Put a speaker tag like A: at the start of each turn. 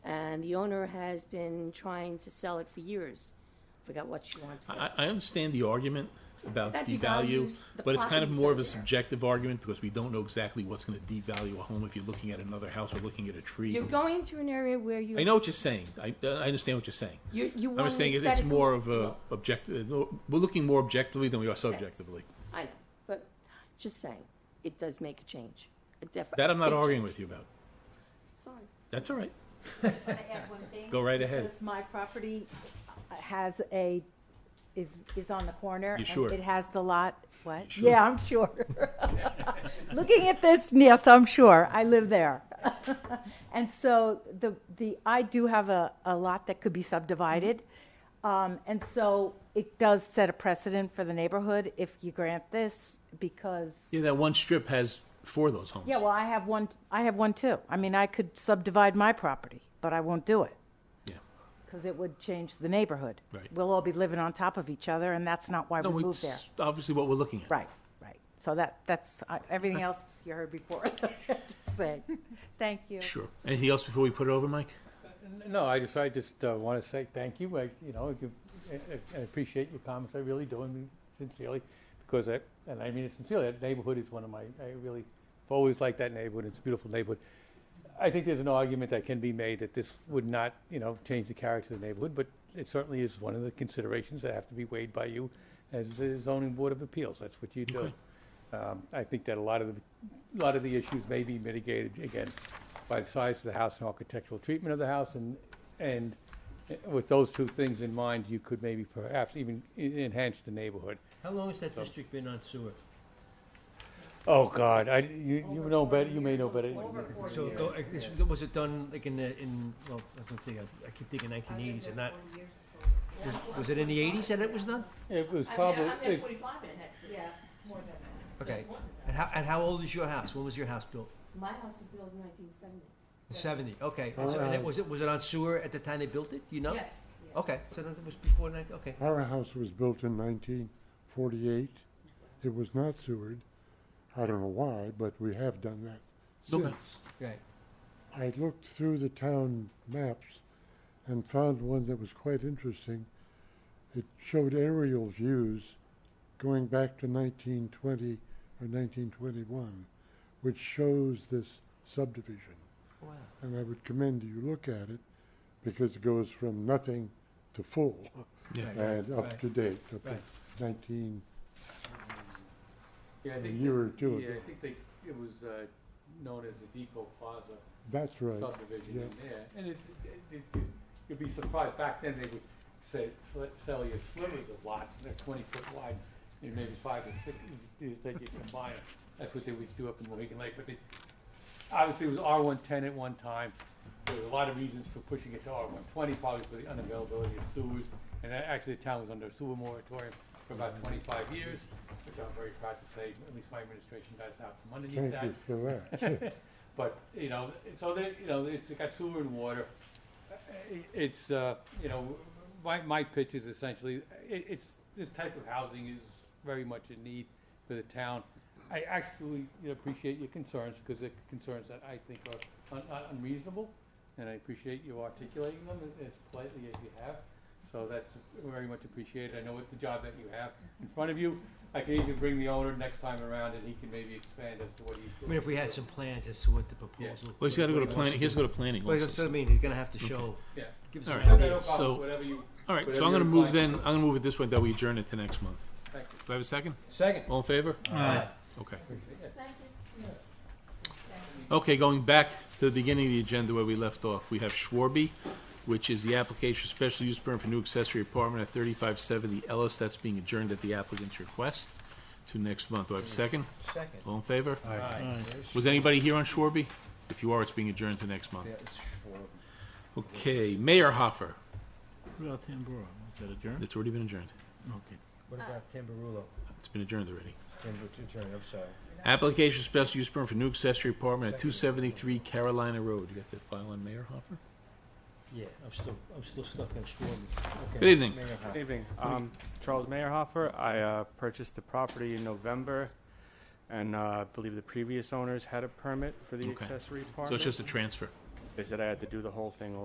A: and the owner has been trying to sell it for years. Forgot what she wants for it.
B: I, I understand the argument about
A: That
B: devalue,
A: devalues the
B: but it's kind of
A: properties
B: more
A: out
B: of a
A: there.
B: subjective argument because we don't know exactly what's gonna devalue a home if you're looking at another house or looking at a tree.
A: You're going to an area where you.
B: I know what you're saying. I, I understand what you're saying.
A: You, you
B: I'm
A: want
B: just saying it- it's
A: aesthetic
B: more of a
A: look.
B: objective, we're looking more objectively than we are subjectively.
A: I know, but just saying, it does make a change. A def-
B: That I'm not
A: big
B: arguing
A: change.
B: with you about.
A: Sorry.
B: That's all right.
C: Can I add one thing?
B: Go right ahead.
C: Because my property has a, is, is on the corner. and
B: sure?
C: It has the lot, what?
B: sure?
C: Yeah, I'm sure. Looking at this, yes, I'm sure. I live there. And so the, the, I do have a, a lot that could be subdivided.
B: Mm-hmm.
C: Um, and so it does set a precedent for the neighborhood if you grant this because
B: Yeah, that one strip has four of those homes.
C: yeah, well, I have one. I have one too. I mean, I could subdivide my property, but I won't do it
B: Yeah.
C: because it would change the neighborhood.
B: Right.
C: We'll all be living on top of each other, and that's not why
B: No,
C: we
B: it's
C: moved there.
B: obviously what we're looking at.
C: Right. Right. So that that's uh, everything else you heard before. Just saying. Thank you.
B: Sure. Anything else before we put it over, Mike?
D: No, I just, I just want to say thank you. I, you know, you- I- I appreciate your comments. I really do, and sincerely, because I, and I mean it sincerely, that neighborhood is one of my, I really have always liked that neighborhood. It's a beautiful neighborhood. I think there's an argument that can be made that this would not, you know, change the character of the neighborhood, but it certainly is one of the considerations that have to be weighed by you as the zoning board of appeals. That's what you do. Um, I think that a lot of the, a lot of the issues may be mitigated again by the size of the house and architectural treatment of the house, and and uh, with those two things in mind, you could maybe perhaps even e- enhance the neighborhood.
E: How long has that district been on sewer?
D: Oh God, I you, you know better. You may know better.
E: So, it go- it's- was it done like in the, in, well, I don't think, I- I keep thinking nineteen eighties and that, was, was it in the eighties that it was done?
D: It was probably it-
A: forty-five and it has. Yeah, more than that.
E: Okay. And how, and how old is your house? When was your house built?
A: My house was built in nineteen seventy.
E: Seventy, okay. And so- and it, was it, was it on sewer at the time they built it? Do you know?
A: Yes.
E: Okay, so then it was before nineteen, okay.
F: Our house was built in 1948. It was not sewered. I don't know why, but we have done that
B: Okay.
F: since.
E: Right.
F: I looked through the town maps and found one that was quite interesting. It showed aerial views going back to 1920 or 1921, which shows this subdivision.
E: Wow.
F: And I would commend you look at it because it goes from nothing to full and up to date, up to
E: Right.
F: 19.
D: yeah, I
F: a
D: think
F: year
D: that-
F: or two
D: Yeah,
F: ago.
D: I think they, it was uh, known as the Depot Plaza
F: That's right.
D: subdivision
F: yeah.
D: in there, and it, it, it, you- you'd be surprised. Back then, they would say sl- sell you slivers of lots, and they're twenty foot wide, and maybe five or six you- you- that you combine. 'em. That's what they would do up in Mohegan Lake, but they, obviously, it was R one ten at one time. There was a lot of reasons for pushing it to R one twenty, probably for the unavailability of sewers, and that- actually, the town was under a sewer moratorium for about twenty-five years, which I'm very proud to say, at least my administration got us out from underneath
F: Thank
D: that.
F: you for that.
D: But, you know, so they, you know, it's got sewer and water. Uh, It's, uh, you know, my, my pitch is essentially, it, it's, this type of housing is very much in need for the town. I actually you know, appreciate your concerns, because they're concerns that I think are un- un- unreasonable, and I appreciate you articulating them as- as politely as you have. So that's very much appreciated. I know it's the job that you have in front of you. I can even bring the owner next time around, and he can maybe expand as to what he's
E: I
D: doing.
E: mean, if we had some plans as to what the proposal.
B: Well, he's gotta go to
E: what he wants
B: planning, he has to go to planning
E: Well,
B: also.
E: that's what I mean, he's gonna have to show,
D: Yeah.
E: give us
B: All
E: an
B: right.
D: No, no,
E: idea.
D: no problem.
B: So-
D: Whatever you-
B: All right, so
D: Whatever
B: I'm gonna
D: you're
B: move then,
D: inclined.
B: I'm gonna move it this way, that we adjourn it to next month.
D: thank you.
B: Do I have a second?
E: Second.
B: All in favor?
E: Aye.
B: Okay.
A: Thank you.
B: Okay, going back to the beginning of the agenda where we left off, we have Schwarby, which is the application for special use permit for new accessory apartment at thirty-five seventy Ellis. That's being adjourned at the applicant's request to next month. Do I have a second?
E: Second.
B: All in favor?
E: Aye.
B: Was anybody here on Schwarby? If you are, it's being adjourned to next month. Okay, Mayor Hoffer.
G: What about Tambora? Was that adjourned?
B: It's already been adjourned.
G: Okay.
E: What about Tamburullo?
B: It's been adjourned already.
E: I'm sorry.
B: Application special use permit for new accessory apartment at two seventy-three Carolina Road. You got that file on Mayor Hoffer?
E: Yeah, I'm still, I'm still stuck on Schwarman.
B: Good evening.
H: Good evening. Um, Charles Meyerhofer. I uh, purchased the property in November, and uh, I believe the previous owners had a permit for the
B: Okay.
H: accessory apartment.
B: So it's just a transfer.
H: They said I had to do the whole thing